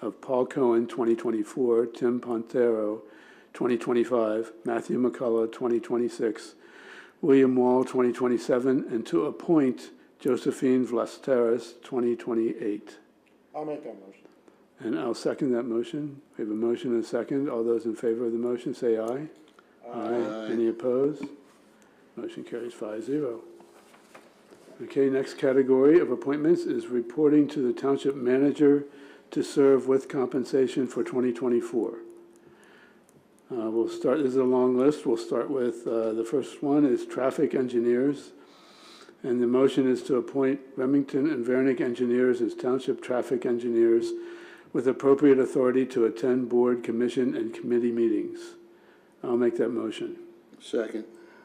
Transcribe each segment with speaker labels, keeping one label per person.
Speaker 1: of Paul Cohen, 2024, Tim Pontero, 2025, Matthew McCullough, 2026, William Wall, 2027, and to appoint Josephine Vlasteras, 2028.
Speaker 2: I'll make that motion.
Speaker 1: And I'll second that motion. We have a motion and a second. All those in favor of the motion, say aye. Aye. Any opposed? Motion carries five zero. Okay, next category of appointments is reporting to the township manager to serve with compensation for 2024. Uh, We'll start, this is a long list. We'll start with, uh, the first one is traffic engineers. And the motion is to appoint Remington and Vernick engineers as township traffic engineers with appropriate authority to attend board, commission, and committee meetings. I'll make that motion.
Speaker 3: Second.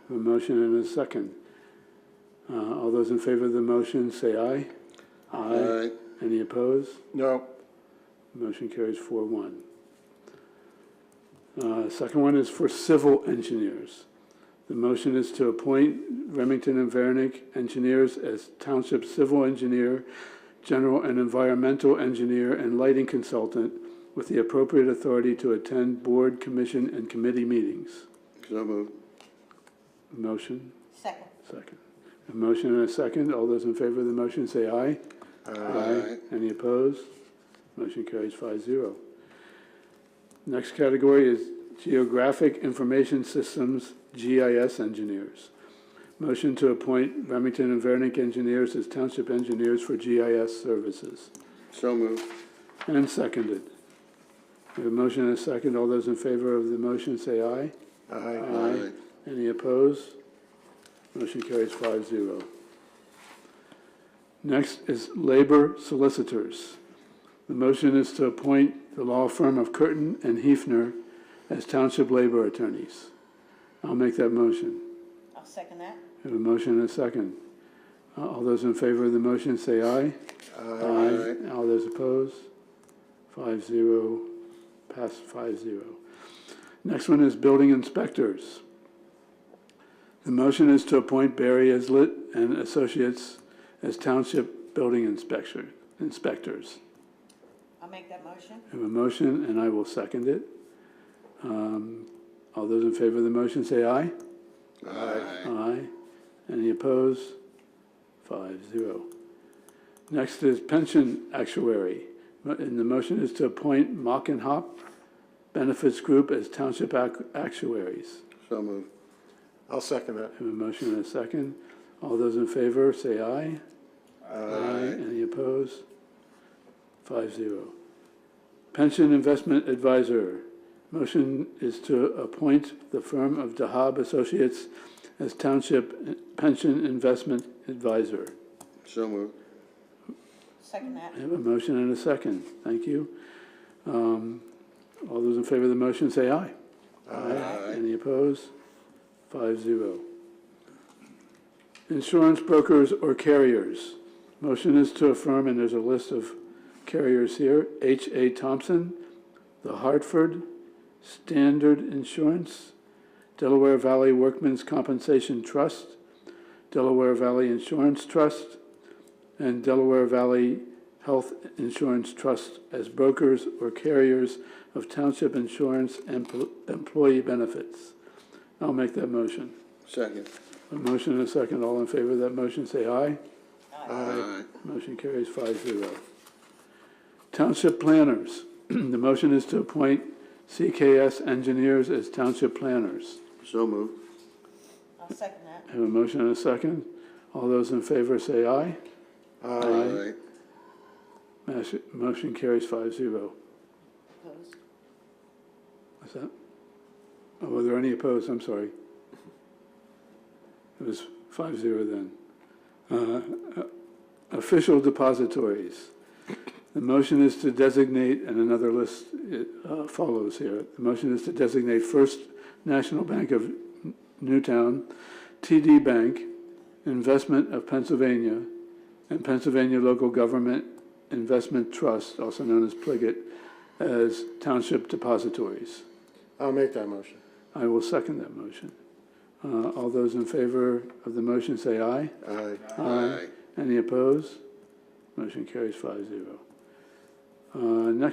Speaker 1: A motion and a second. Uh, All those in favor of the motion, say aye.
Speaker 3: Aye.
Speaker 1: Any opposed?
Speaker 2: No.
Speaker 1: Motion carries four one. Uh, Second one is for civil engineers. The motion is to appoint Remington and Vernick engineers as township civil engineer, general and environmental engineer, and lighting consultant with the appropriate authority to attend board, commission, and committee meetings.
Speaker 3: So moved.
Speaker 1: Motion,
Speaker 4: Second.
Speaker 1: second. A motion and a second. All those in favor of the motion say aye.
Speaker 3: Aye.
Speaker 1: Any opposed? Motion carries five zero. Next category is Geographic Information Systems, GIS Engineers. Motion to appoint Remington and Vernick Engineers as Township Engineers for GIS Services.
Speaker 3: So moved.
Speaker 1: And seconded. We have a motion and a second. All those in favor of the motion say aye.
Speaker 2: Aye.
Speaker 1: Aye. Any opposed? Motion carries five zero. Next is labor solicitors. The motion is to appoint the law firm of Curtin and Hefner as township labor attorneys. I'll make that motion.
Speaker 4: I'll second that.
Speaker 1: I Have a motion and a second. Uh, All those in favor of the motion, say aye. Aye. All those opposed? Five zero, pass five zero. Next one is building inspectors. The motion is to appoint Barry Islet and Associates as township building inspector, inspectors.
Speaker 4: I'll make that motion.
Speaker 1: I Have a motion, and I will second it. Um, All those in favor of the motion, say aye.
Speaker 3: Aye.
Speaker 1: Aye. Any opposed? Five, zero. Next is pension actuary. Mo- And the motion is to appoint Mock and Hop Benefits Group as township ac- actuaries.
Speaker 3: So moved.
Speaker 2: I'll second that.
Speaker 1: I Have a motion and a second. All those in favor, say aye. Aye. Any opposed? Five zero. Pension Investment Advisor. Motion is to appoint the firm of Dahab Associates as Township Pension Investment Advisor.
Speaker 3: So moved.
Speaker 4: Second that.
Speaker 1: I have a motion and a second. Thank you. Um, All those in favor of the motion, say aye. Aye. Any opposed? Five zero. Insurance brokers or carriers. Motion is to affirm, and there's a list of carriers here. H.A. Thompson, The Hartford, Standard Insurance, Delaware Valley Workmen's Compensation Trust, Delaware Valley Insurance Trust, and Delaware Valley Health Insurance Trust as brokers or carriers of township insurance and pl- employee benefits. I'll make that motion.
Speaker 3: Second.
Speaker 1: A motion and a second. All in favor of that motion, say aye.
Speaker 3: Aye.
Speaker 1: Motion carries five zero. Township planners. The motion is to appoint CKS engineers as township planners.
Speaker 3: So moved.
Speaker 4: I'll second that.
Speaker 1: Have a motion and a second. All those in favor, say aye.
Speaker 3: Aye.
Speaker 1: Mas- Motion carries five zero.
Speaker 4: Opposed?
Speaker 1: What's that? Oh, were there any opposed? I'm sorry. It was five zero then. Uh, uh, Official depositories. The motion is to designate, and another list uh, follows here. The motion is to designate First National Bank of N- Newtown, TD Bank, Investment of Pennsylvania, and Pennsylvania Local Government Investment Trust, also known as Pliggett, as township depositories.
Speaker 2: I'll make that motion.
Speaker 1: I will second that motion. Uh, All those in favor of the motion say aye.
Speaker 2: Aye.
Speaker 3: Aye.
Speaker 1: Any opposed? Motion carries five zero. Uh, Next